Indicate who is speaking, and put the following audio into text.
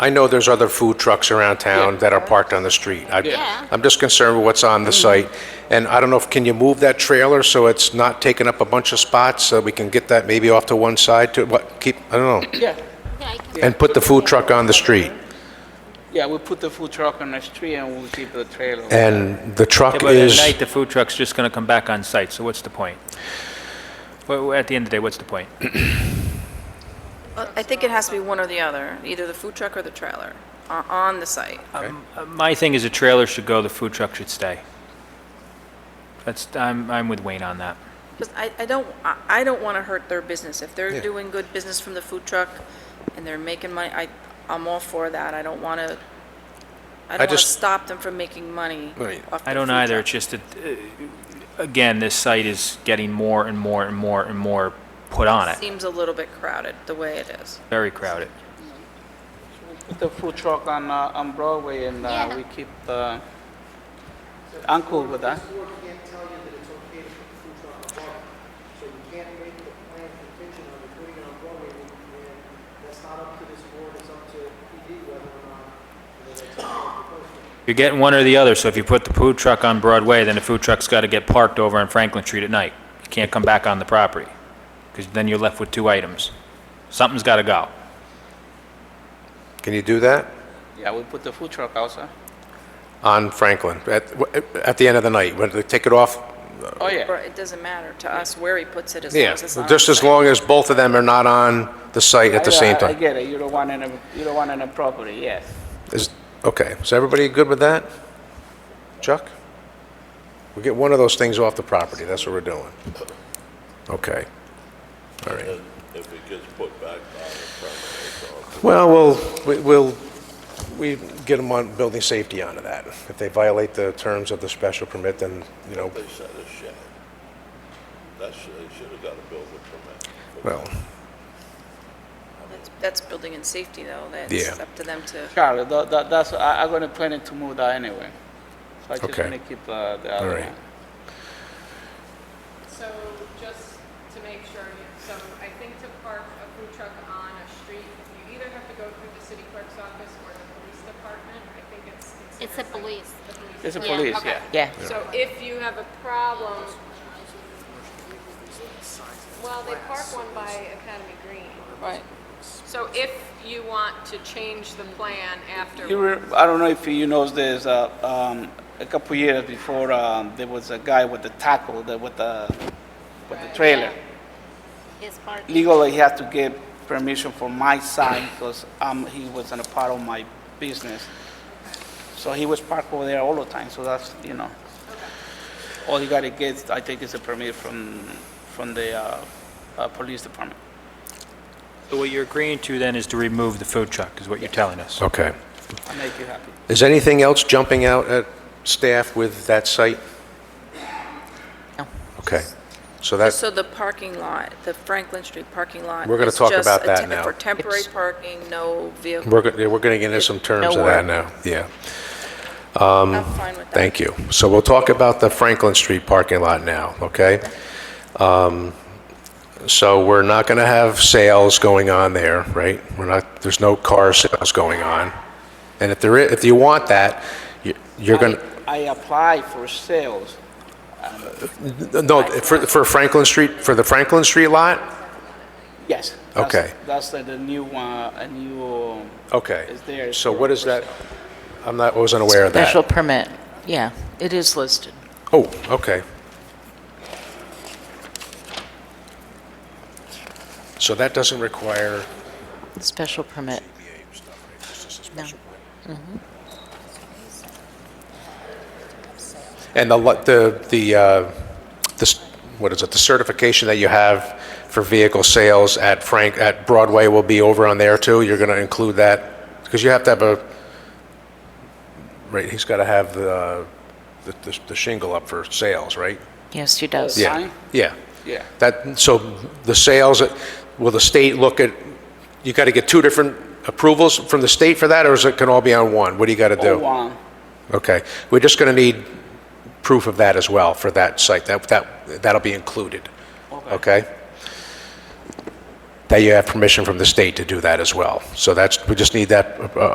Speaker 1: I know there's other food trucks around town that are parked on the street. I-
Speaker 2: Yeah.
Speaker 1: I'm just concerned with what's on the site. And I don't know if, can you move that trailer so it's not taking up a bunch of spots, so we can get that maybe off to one side to, what, keep, I don't know,
Speaker 2: Yeah,
Speaker 3: Yeah, I can-
Speaker 1: and put the food truck on the street?
Speaker 2: yeah, we put the food truck on the street and we'll keep the trailer.
Speaker 1: And the
Speaker 4: Yeah,
Speaker 1: truck
Speaker 4: but at
Speaker 1: is,
Speaker 4: night, the food truck's just going to come back on site, so what's the point? Well, At the end of the day, what's the point?
Speaker 5: Well, Uh, I think it has to be one or the other, either the food truck or the trailer, o- on the site.
Speaker 4: Uh, My thing is the trailer should go, the food truck should stay. That's, I'm, I'm with Wayne on that.
Speaker 5: Because I, I don't, I I don't want to hurt their business. If they're doing good business from the food truck and they're making money, I, I'm all for that. I don't want to, I don't want to
Speaker 1: just-
Speaker 5: stop them from making money
Speaker 1: Right.
Speaker 5: off
Speaker 4: I
Speaker 5: the
Speaker 4: don't
Speaker 5: food
Speaker 4: either,
Speaker 5: truck.
Speaker 4: it's just that, uh, again, this site is getting more and more and more and more put on it,
Speaker 5: Seems a little bit crowded, the way it is.
Speaker 4: very crowded.
Speaker 2: Put the food truck on, uh, on Broadway and, uh,
Speaker 3: Yeah.
Speaker 2: we keep the, I'm cool with that.
Speaker 6: can't tell you that it's okay to put the food truck on Broadway. So you can't make the plan contingent on you putting it on Broadway, and and that's not up to this board, it's up to PD whether or not, whether that's a proposal.
Speaker 4: You're getting one or the other, so if you put the food truck on Broadway, then the food truck's got to get parked over on Franklin Street at night. You can't come back on the property, because then you're left with two items. Something's got to go.
Speaker 1: can you do that?
Speaker 2: Yeah, we put the food truck outside.
Speaker 1: On Franklin, at, at the end of the night, when they take it off?
Speaker 2: Oh, yeah.
Speaker 5: Or it doesn't matter to us where he puts it as long
Speaker 1: Yeah,
Speaker 5: as it's on.
Speaker 1: just
Speaker 5: the
Speaker 1: as
Speaker 5: site.
Speaker 1: long as both of them are not on the site at the
Speaker 2: I-
Speaker 1: same
Speaker 2: I- I
Speaker 1: time.
Speaker 2: get it, you don't want any, you don't want any property, yes.
Speaker 1: Is, okay, is everybody good with that? Chuck? We get one of those things off the property, that's what we're doing. Okay. All right.
Speaker 7: if it gets put back on the premises or
Speaker 1: Well, we'll, we- we'll, we get them on building safety onto that. If they violate the terms of the special permit, then, you know,
Speaker 7: they set a shed. That's, they should have got a building permit.
Speaker 1: well,
Speaker 5: That's- That's building and safety, though. That's
Speaker 1: Yeah.
Speaker 5: up to them to.
Speaker 2: Charlie, tha- tha- that's, I, I'm gonna plan it to move that anyway. So I just
Speaker 1: Okay.
Speaker 2: wanna keep, uh, the
Speaker 1: all
Speaker 2: other
Speaker 1: right.
Speaker 2: one.
Speaker 8: So just to make sure, you- so I think to park a food truck on a street, you either have to go through the city clerk's office or the police department. I think it's
Speaker 3: It's the
Speaker 8: considered like
Speaker 3: police.
Speaker 8: the police.
Speaker 2: It's a
Speaker 3: Yeah,
Speaker 2: police,
Speaker 8: okay.
Speaker 2: yeah.
Speaker 9: Yeah.
Speaker 8: So if you have a problem, well, they park one by Academy Green.
Speaker 5: Right.
Speaker 8: So if you want to change the plan after.
Speaker 2: You re I don't know if you knows this, uh, um, a couple years before, um, there was a guy with the tackle, the, with the, with the trailer.
Speaker 3: His parking.
Speaker 2: Legally, he had to get permission from my side because, um, he wasn't a part of my business. So he was parked over there all the time, so that's, you know. All you gotta get, I think, is a permit from, from the, uh, uh, police department.
Speaker 4: So what you're agreeing to then is to remove the food truck, is what you're telling us?
Speaker 1: okay.
Speaker 2: I make you happy.
Speaker 1: Is anything else jumping out at staff with that site?
Speaker 9: No.
Speaker 1: Okay, so that,
Speaker 5: So the parking lot, the Franklin Street parking lot.
Speaker 1: We're gonna
Speaker 5: is
Speaker 1: talk
Speaker 5: just
Speaker 1: about
Speaker 5: a
Speaker 1: that
Speaker 5: tem-
Speaker 1: now.
Speaker 5: For temporary
Speaker 9: It's-
Speaker 5: parking, no vehicle,
Speaker 1: we're, go- we're gonna get into some terms of that now, yeah.
Speaker 5: I'm fine with that.
Speaker 1: Thank you. So we'll talk about the Franklin Street parking lot now, okay? Um, So we're not going to have sales going on there, right? We're not, there's no car sales going on. And if there, i- if you want that, you- you're going
Speaker 2: I apply for sales.
Speaker 1: to, no, for for Franklin Street, for the Franklin Street lot?
Speaker 2: Yes. that's-
Speaker 1: Okay.
Speaker 2: That's the the new, uh, a new, um,
Speaker 1: Okay.
Speaker 2: It's there.
Speaker 1: So what is that? I'm not, wasn't aware of that.
Speaker 9: Special permit, yeah, it is listed.
Speaker 1: Oh, okay. So that doesn't require
Speaker 9: Special permit, no.
Speaker 1: And the, li- the, the, uh, this- what is it, the certification that you have for vehicle sales at Frank, at Broadway will be over on there too? You're going to include that? Because you have to have a, right, he's got to have the, uh, the- the the shingle up for sales, right?
Speaker 9: Yes, he does.
Speaker 1: Yeah.
Speaker 2: Sign?
Speaker 1: Yeah.
Speaker 2: Yeah.
Speaker 1: That, so the sales, will the state look at, you got to get two different approvals from the state for that, or is it, can all be on one? What do you got to do?
Speaker 2: Oh, one.
Speaker 1: Okay, we're just going to need proof of that as well for that site, that, that, that'll be included, okay? That you have permission from the state to do that as well, so that's, we just need that uh,